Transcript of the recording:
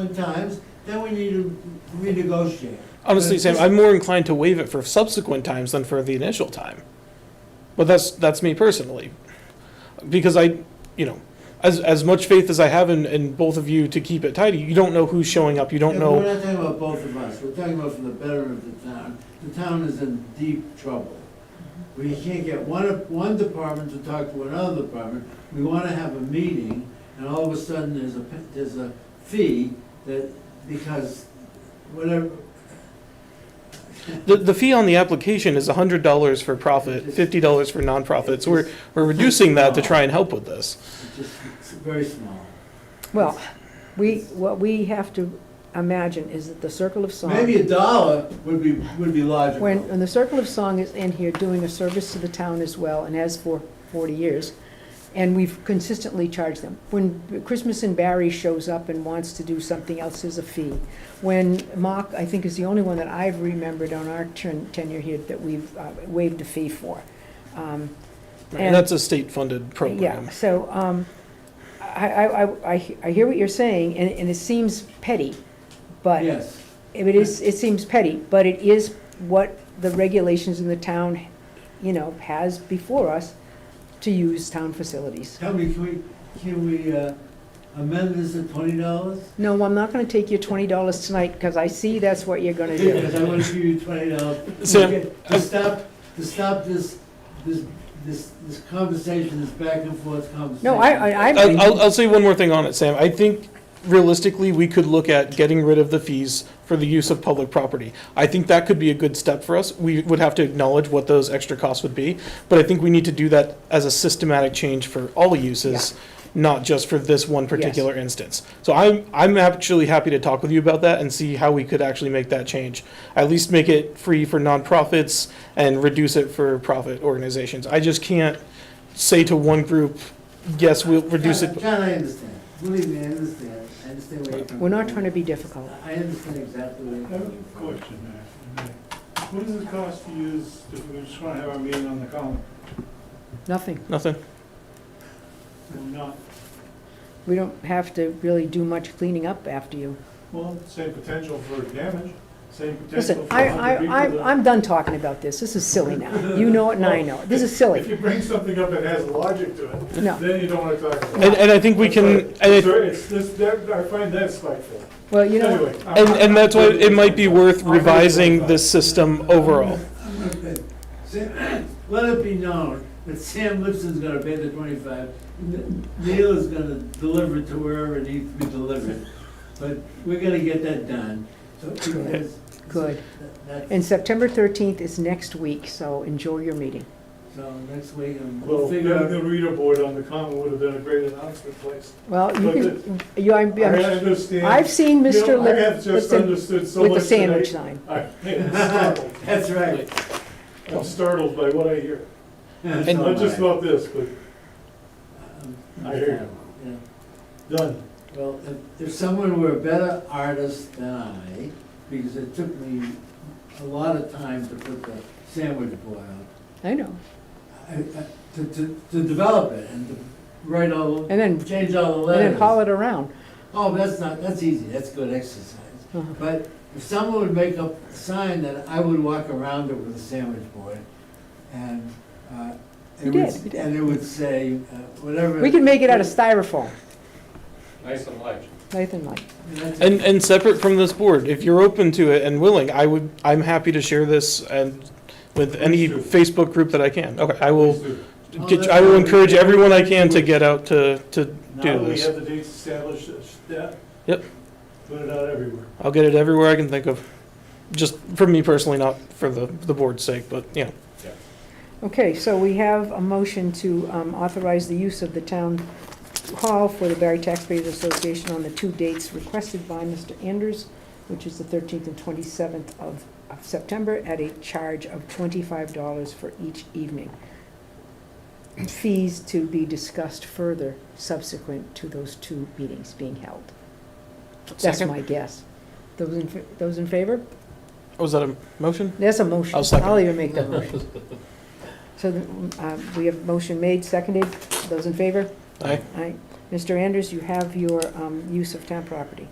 At times, then we need to renegotiate. Honestly, But Sam, this- I'm more inclined to waive it for subsequent times than for the initial time. But that's, that's me personally. Because I, you know, as, as much faith as I have in, in both of you to keep it tidy, you don't know who's showing up, you don't Yeah, know. but We're not talking about both of us, we're talking about for the betterment of the town. The town is in deep trouble. We can't get one, one department to talk to another department. We wanna have a meeting, and all of a sudden, there's a, pe- there's a fee that, because whatever, The, the fee on the application is hundred dollars for profit, fifty dollars for nonprofit, so we're, we're reducing that to try and help with this. it's just, it's very small. Well, we, what we have to imagine is that the Circle of Song. Maybe a dollar would be, would be logical. When, uh, when the Circle of Song is in here doing a service to the town as well, and has for forty years, and we've consistently charged them. When Christmas and Barry shows up and wants to do something else, there's a fee. When Mock, I think, is the only one that I've remembered on our ten- tenure here that we've uh, waived a fee for. Um, And that's a state-funded Yeah, program. so, um, I, I, I- I, I hear what you're saying, and, and it seems petty, but Yes, it is, it seems petty, but it is what the regulations in the town, you know, has before us to use town facilities. tell me, can we, can we uh, amend this at twenty dollars? No, I'm not gonna take your twenty dollars tonight, because I see that's what you're gonna do. Because I want to give you twenty dollars. Sam, To stop, to stop this, this, this, this conversation, this back and forth conversation. No, I, I, I'll, I'll- I, I'll say one more thing on it, Sam. I think realistically, we could look at getting rid of the fees for the use of public property. I think that could be a good step for us. We would have to acknowledge what those extra costs would be, but I think we need to do that as a systematic change for all uses, not just for this one particular instance. So I'm, I'm actually happy to talk with you about that and see how we could actually make that change. At least make it free for nonprofits and reduce it for profit organizations. I just can't say to one group, yes, we'll reduce it. John, I understand. Believe me, I understand. I understand where you're coming from. we're not trying to be difficult. I understand exactly where you're I have a coming from. question there. What does it cost to use, if we just want to have our meeting on the common, Nothing. Nothing. or not? We don't have to really do much cleaning up after you. Well, same potential for damage, same potential Listen, for I, other I, people I'm, to... I'm done talking about this. This is silly now. You know it and I know it. This is If silly. you bring something up that has logic to it, No. then you don't want to talk about And, it. and I think we can, and, it- Sir, it's, this, that, I find that spiteful. Well, you know, what? Anyway, I'm- and, and that's why it might be worth I'm gonna- revising this system overall. Okay. Sam, Let it be known that Sam Lipson's gonna pay the twenty-five. N- Neil is gonna deliver it to wherever it needs to be delivered. But we're gonna get that done. So, because- good. that- that's- And September thirteenth is next week, so enjoy your meeting. So next week, um, Well, we'll then figure the out. reader board on the common would have been a great announcement place. Well, you But can, you, I'm, I I'm- understand. I've seen You know, Mr. I Lip- have just Lipton understood so much with the today. sandwich sign. I- I'm startled. That's right. I'm startled by what I hear. That's all Not just right. about this, but Um, I hear yeah. done. Well, if, if someone were a better artist than I, because it took me a lot of time to put the sandwich board up, I know. I, I, to, to, to develop it and to write all, And then, change all the and then letters. haul it around. Oh, that's not, that's easy, that's good exercise. Uh-huh. But if someone would make up a sign that I would walk around it with a sandwich board and, uh, You it would- did, you did. And it would say, uh, whatever. We can make it out of styrofoam, Nice and light. Nathan like. That's- And, and separate from this board, if you're open to it and willing, I would, I'm happy to share this and with any Please Facebook group that I can. Okay, I will, Oh, get- that's I will right. encourage everyone I can to get out to, to Now do that we this. have the dates established, it's that. Yep. Put it out everywhere. I'll get it everywhere I can think of, just for me personally, not for the, the board's sake, but, you know. Okay, so we have a motion to um, authorize the use of the town hall for the Barry Taxpayers Association on the two dates requested by Mr. Anders, which is the 13th and 27th of of September, at a charge of $25 for each evening. Fees to be discussed further subsequent to those two meetings being held. That's Second. my guess. Those in, fa- those in favor? Was Oh, that a motion? There's a motion. I'll second I'll it. even make that motion. So uh, we have motion made, seconded. Those in favor? Aye. Aye. Mr. Anders, you have your um, use of town property.